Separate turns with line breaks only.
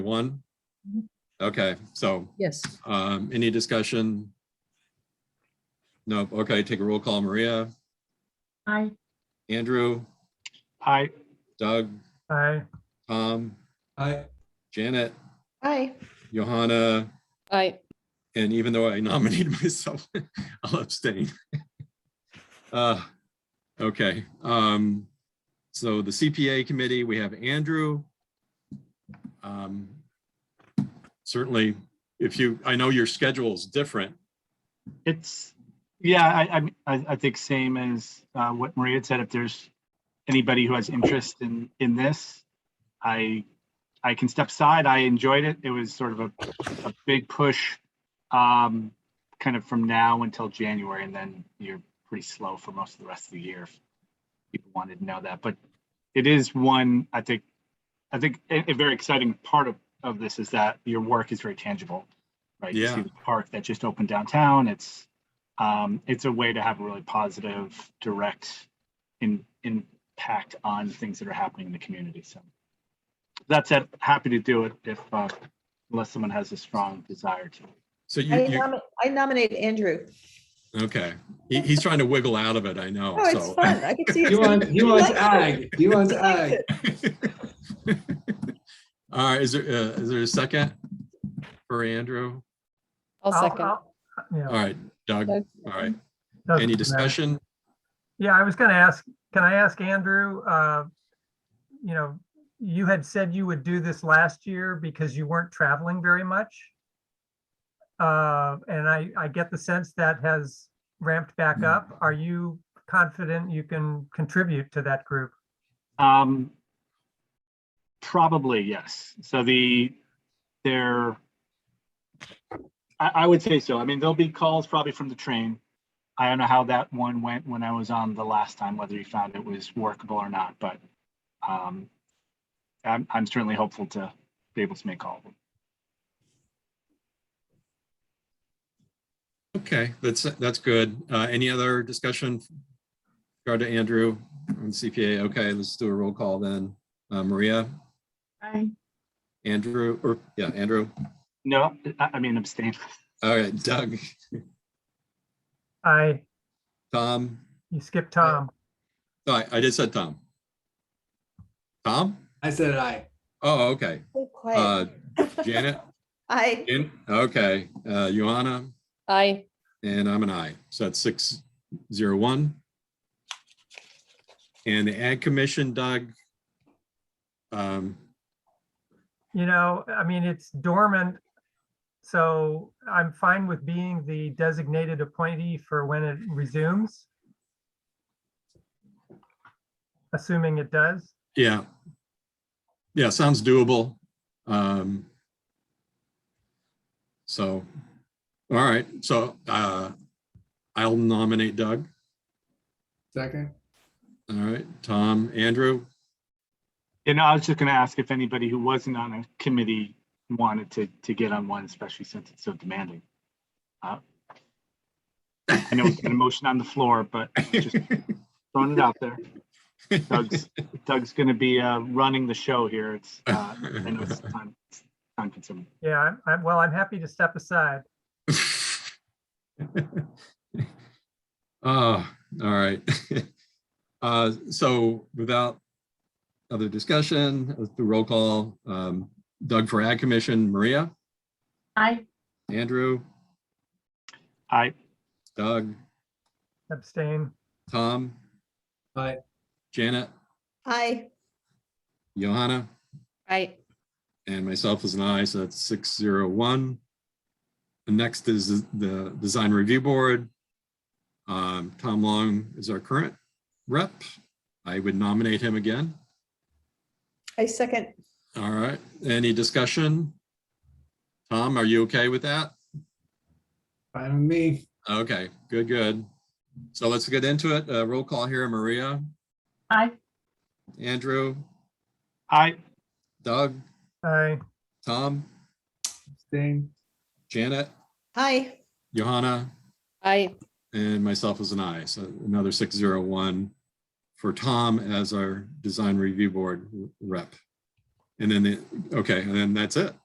One?
Mhm.
Okay, so
Yes,
um, any discussion? No, okay, take a roll call. Maria,
I,
Andrew,
Aye.
Doug,
Aye.
Tom,
Aye.
Janet,
Aye.
Johanna,
Aye.
and even though I nominated myself, I'll abstain. Uh, Okay, um, so the CPA committee, we have Andrew. Um, Certainly, if you, I know your schedule's different,
It's, yeah, I, I- I, I think same as uh, what Maria had said, if there's anybody who has interest in, in this, I, I can step aside. I enjoyed it. It was sort of a, a big push um, kind of from now until January, and then you're pretty slow for most of the rest of the year. if People wanted to know that, but it is one, I think, I think a, a very exciting part of, of this is that your work is very tangible. Right? You
Yeah.
See the park that just opened downtown. It's, um, it's a way to have a really positive, direct in, impact on things that are happening in the community. So that said, happy to do it if, uh, unless someone has a strong desire to.
so you.
I um,
you-
nomi- I nominate Andrew.
Okay, he, he's trying to wiggle out of it, I know,
Oh, it's
so.
fun. I can see.
He
it's
wants,
gonna-
he wants
likes it.
ag, he wants
He likes
ag.
it.
All right, is there, uh, is there a second for Andrew?
I'll
I'll-
second.
I'll- yeah.
All right, Doug, all
Doug.
right,
Doesn't
any
matter.
discussion?
Yeah, I was gonna ask, can I ask Andrew, uh, you know, you had said you would do this last year because you weren't traveling very much. Uh, and I, I get the sense that has ramped
Hmm.
back up. Are you confident you can contribute to that group?
Um, probably, yes. So the, there, I, I would say so. I mean, there'll be calls probably from the train. I don't know how that one went when I was on the last time, whether you found it was workable or not, but, um, I'm, I'm certainly hopeful to be able to make all of them.
Okay, that's, that's good. Uh, any other discussion? with Regard to Andrew on CPA, okay, let's do a roll call then. Uh, Maria,
I,
Andrew, or, yeah, Andrew,
No, I, I mean abstain.
all right, Doug,
I,
Tom,
you skipped Tom.
no, I, I just said Tom. Tom?
I said aye.
Oh, okay,
So
uh,
quiet.
Janet,
I,
Jan- okay, uh, Joanna?
Aye.
And I'm an I. So that's six zero one. And the Ag Commission, Doug. Um,
You know, I mean, it's dormant. So I'm fine with being the designated appointee for when it resumes. Assuming it does.
yeah. Yeah, sounds doable. Um. So, all right, so uh, I'll nominate Doug.
Second,
All right, Tom, Andrew.
And I was just gonna ask if anybody who wasn't on a committee wanted to, to get on one, especially since it's so demanding. Uh, I know we got a motion on the floor, but just throwing it out there. Doug's, Doug's gonna be, uh, running the show here. It's,
Ah,
uh, I know it's time, it's time consuming.
Yeah, I'm- I'm, well, I'm happy to step aside.
Oh, all right. Uh, so without other discussion, let's do roll call. Um, Doug for Ag Commission, Maria,
I,
Andrew,
I,
Doug,
Abstain.
Tom,
aye,
Janet,
I,
Johanna,
Aye.
and myself as an aye, so that's six zero one. The next is the Design Review Board. Um, Tom Long is our current rep. I would nominate him again.
I second.
All right, any discussion? Tom, are you okay with that?
fine with me.
Okay, good, good. So let's get into it. Uh, Roll call here, Maria,
I,
Andrew,
I,
Doug,
I,
Tom,
Abstain.
Janet,
I,
Johanna,
Aye.
and myself as an I. So another six zero one for Tom as our design review board rep. And then, the okay, and then that's it.